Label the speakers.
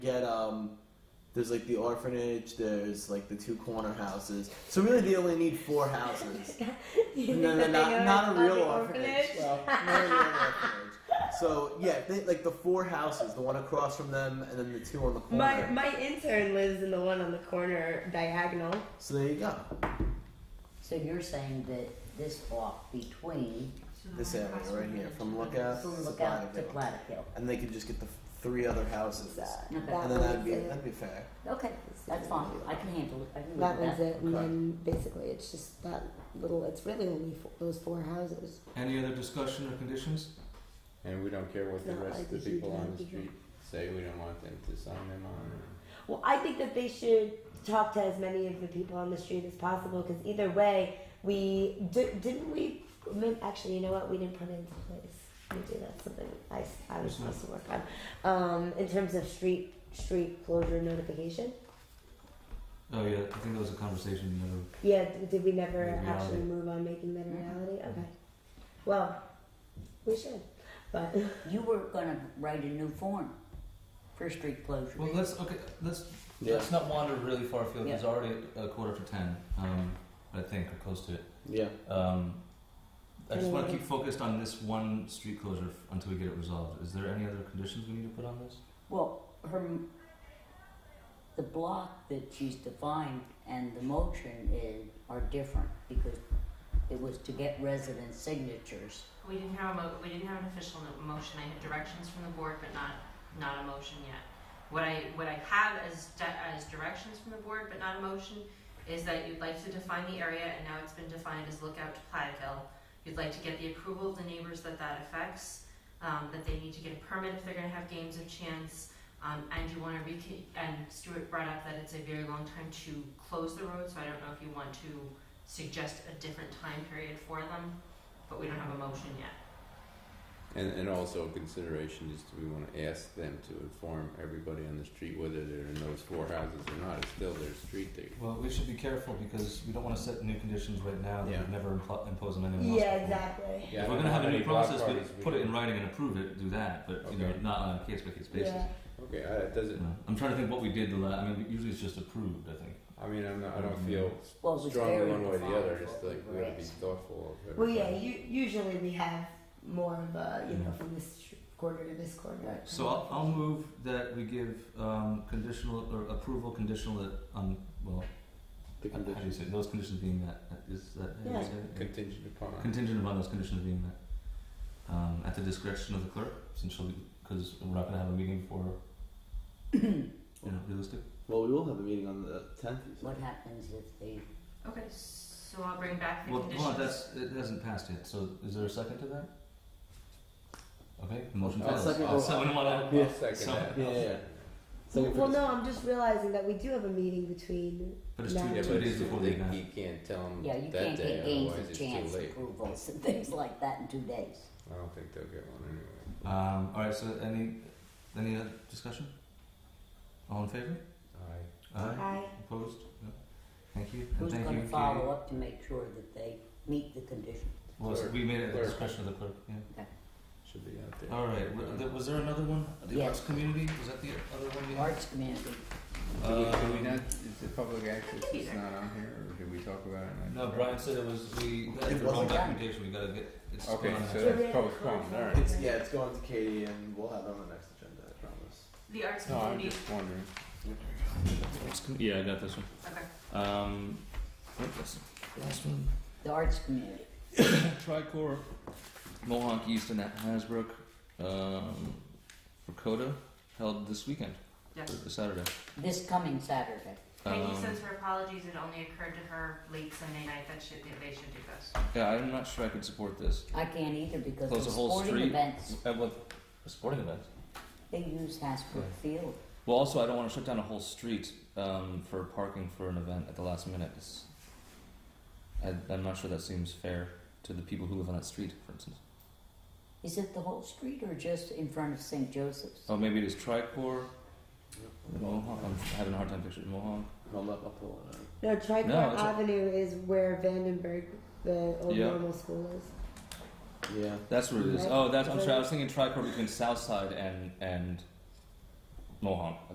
Speaker 1: get um. There's like the orphanage. There's like the two corner houses. So really, they only need four houses.
Speaker 2: Do you
Speaker 1: No, no,
Speaker 2: think that they
Speaker 1: not, not
Speaker 2: go to
Speaker 1: a real
Speaker 2: the
Speaker 1: orphanage. Well, not a real orphanage. So yeah, they, like the four houses, the one across from them, and then the two on the corner.
Speaker 2: My my intern lives in the one on the corner diagonal.
Speaker 1: so there you go.
Speaker 3: So you're saying that this block between
Speaker 1: This area right here, from Lookout,
Speaker 3: from
Speaker 1: to
Speaker 3: Lookout to
Speaker 1: Platteville.
Speaker 3: Platicille.
Speaker 1: and they could just get the f- three other houses,
Speaker 2: Exactly.
Speaker 3: Now that
Speaker 1: and then that'd
Speaker 3: one's
Speaker 1: be
Speaker 3: it.
Speaker 1: that'd be fair.
Speaker 3: Okay, that's fine. I can handle it. I can live
Speaker 4: That
Speaker 3: with
Speaker 4: one's
Speaker 3: that.
Speaker 4: it, and then basically it's just that little. It's really only four, those four houses.
Speaker 5: Any other discussion or conditions?
Speaker 6: And we don't care what the
Speaker 4: No, I
Speaker 6: rest of the
Speaker 4: think you
Speaker 6: people
Speaker 4: can
Speaker 6: on the
Speaker 4: be here.
Speaker 6: street say, we don't want them to sign them on. it.
Speaker 2: Well, I think that they should talk to as many of the people on the street as possible because either way, we di- didn't we. I mean, Actually, you know what? We didn't put it into place. We did that's something I, s- I was supposed to work on. Um, in terms of street street closure notification,
Speaker 5: Oh yeah, I think that was a conversation. the other-
Speaker 2: yeah, d- did we never
Speaker 5: Reality.
Speaker 2: actually move on making that a reality? Okay. Well, we should, but
Speaker 3: You were gonna write a new form for street closure.
Speaker 5: Well, let's okay. Let's
Speaker 6: Yeah.
Speaker 5: let's not wander really far afield.
Speaker 3: Yeah.
Speaker 5: It's already a quarter to ten. Um, I think or close to it.
Speaker 6: Yeah.
Speaker 5: Um, I just want to
Speaker 2: Anyway.
Speaker 5: keep focused on this one street closure f- until we get it resolved. Is there any other conditions we need to put on this?
Speaker 3: Well, her, the block that she's defined and the motion in are different because it was to get resident signatures.
Speaker 7: We didn't have a mo- we didn't have an official no- motion. I had directions from the board, but not not a motion yet. What I what I have as di- as directions from the board, but not a motion, is that you'd like to define the area, and now it's been defined as Lookout to Platteville. You'd like to get the approval of the neighbors that that affects, um, that they need to get a permit if they're going to have games of chance. Um, and you want to recon- and Stuart brought up that it's a very long time to close the road, so I don't know if you want to suggest a different time period for them, but we don't have a motion yet.
Speaker 6: And, and also a consideration is do we want to ask them to inform everybody on the street whether they're in those four houses or not? It's still their street there.
Speaker 5: Well, we should be careful because we don't want to set new conditions right now that
Speaker 6: Yeah.
Speaker 5: we've never impl- imposed on anyone else.
Speaker 2: yeah,
Speaker 5: before.
Speaker 2: exactly.
Speaker 6: Yeah,
Speaker 5: if we're
Speaker 6: I don't
Speaker 5: gonna
Speaker 6: know
Speaker 5: have
Speaker 6: how
Speaker 5: a new
Speaker 6: many block
Speaker 5: process,
Speaker 6: parties
Speaker 5: we
Speaker 6: we
Speaker 5: put it
Speaker 6: can-
Speaker 5: in writing and approve it. Do that, but you know,
Speaker 6: Okay.
Speaker 5: not on a case by case basis.
Speaker 2: Yeah.
Speaker 6: Okay, I, it doesn't,
Speaker 5: No. I'm trying to think what we did the last. I mean, usually it's just approved. I think.
Speaker 6: I mean, I'm not, I don't feel
Speaker 3: Well,
Speaker 1: Mm-hmm.
Speaker 3: it was
Speaker 6: strongly
Speaker 3: very
Speaker 6: one way or
Speaker 3: defined
Speaker 6: the other. It's
Speaker 3: what
Speaker 6: like
Speaker 3: we
Speaker 6: we
Speaker 3: were
Speaker 6: gotta be
Speaker 3: asking.
Speaker 6: thoughtful of
Speaker 2: Well, yeah.
Speaker 6: everything.
Speaker 2: You, usually we have more of a you know from this quarter to this quarter.
Speaker 3: Right.
Speaker 5: So I'll, I'll move that we give um, conditional or approval conditional that um well
Speaker 6: The
Speaker 5: how do you say it? those conditions being met is that how do you
Speaker 2: Yeah.
Speaker 5: say it?
Speaker 6: Contingent upon.
Speaker 5: contingent upon those conditions being met um, at the discretion of the clerk since she'll because we're not going to have a meeting for you know realistic
Speaker 1: Well, we will have a meeting on the tenth.
Speaker 3: What happens if they,
Speaker 7: Okay, so I'll bring back the
Speaker 5: well
Speaker 7: conditions.
Speaker 5: hold on that's it hasn't passed yet so is there a second to that okay the motion
Speaker 6: I'll
Speaker 5: fails
Speaker 1: Uh,
Speaker 5: Oh,
Speaker 1: second-
Speaker 5: I'll second it.
Speaker 6: I'll second
Speaker 5: So-
Speaker 6: that.
Speaker 1: Yeah,
Speaker 6: I'll
Speaker 1: yeah.
Speaker 6: second
Speaker 2: Well, no, I'm just realizing that we do have a meeting between.
Speaker 5: but it's
Speaker 2: Yeah,
Speaker 5: two,
Speaker 6: that. Yeah,
Speaker 5: two
Speaker 6: but
Speaker 5: days
Speaker 6: it's-
Speaker 5: before the
Speaker 6: you-
Speaker 5: event
Speaker 6: You can't tell them
Speaker 3: yeah, you
Speaker 6: that
Speaker 3: can't
Speaker 6: day,
Speaker 3: get games
Speaker 6: otherwise
Speaker 3: of
Speaker 6: it's too
Speaker 3: chance
Speaker 6: late.
Speaker 3: approvals and things like that in two days.
Speaker 6: I don't think they'll get one anyway.
Speaker 5: um, alright so any any other discussion all in favor
Speaker 6: Aye.
Speaker 5: aye
Speaker 2: I
Speaker 5: Opposed? No. Thank you. And
Speaker 3: Who's
Speaker 5: thank you,
Speaker 3: gonna
Speaker 5: Katie.
Speaker 3: follow up to make sure that they meet the condition?
Speaker 5: Well, so
Speaker 6: Clerk.
Speaker 5: we made it at the
Speaker 6: Clerk.
Speaker 5: discretion of the clerk. Yeah.
Speaker 6: Should be out there.
Speaker 5: All right. wa- th- Was there another one? The
Speaker 3: Yes.
Speaker 5: arts community? Was that the other one we had?
Speaker 3: Arts community,
Speaker 6: Do we, do Uh, we
Speaker 5: Um,
Speaker 6: not, is the public access
Speaker 7: Either.
Speaker 6: is not uh, on here, or did we talk about it? in
Speaker 5: No,
Speaker 6: the-
Speaker 5: Brian said it was we.
Speaker 1: It
Speaker 5: After wrong
Speaker 1: wasn't
Speaker 3: done.
Speaker 5: documentation, we gotta get. It's
Speaker 6: Okay,
Speaker 5: gone.
Speaker 6: so that's postponed, alright.
Speaker 1: It's yeah, it's going to Katie, and we'll have it on the next agenda. I promise.
Speaker 7: The arts
Speaker 6: No, I'm
Speaker 7: community.
Speaker 6: just wondering.
Speaker 5: yeah, I got this one.
Speaker 7: Okay.
Speaker 5: Um, what was the last one?
Speaker 3: the arts community.
Speaker 5: Tricor, Mohawk East and Hasbrook, um, for Coda, held this weekend,
Speaker 7: Yes.
Speaker 5: or Saturday.
Speaker 3: This coming Saturday.
Speaker 7: Peggy
Speaker 5: Um,
Speaker 7: says her apologies. It only occurred to her late Sunday night that she, that they should do this.
Speaker 5: Yeah, I'm not sure I could support this.
Speaker 3: I can't either because
Speaker 5: Close
Speaker 3: the
Speaker 5: the whole
Speaker 3: sporting
Speaker 5: street.
Speaker 3: events
Speaker 5: At Uh, what? A sporting event.
Speaker 3: they use Hasbrook Field.
Speaker 5: Well, also, I don't want to shut down a whole street um, for parking for an event at the last minute. It's, I, I'm not sure that seems fair to the people who live on that street, for instance.
Speaker 3: Is it the whole street or just in front of St. Joseph's?
Speaker 5: Oh, maybe it is Tricor, Mohawk. I'm having a hard time picturing Mohawk.
Speaker 1: I'll, I'll pull it out.
Speaker 2: no Tricor
Speaker 5: No, it's a-
Speaker 2: Avenue is where Vandenberg, the old
Speaker 5: Yeah.
Speaker 2: normal school is.
Speaker 1: Yeah.
Speaker 5: That's where it is.
Speaker 2: Right.
Speaker 5: Oh, that's. I'm sorry. I was thinking Tricor between Southside and and Mohawk.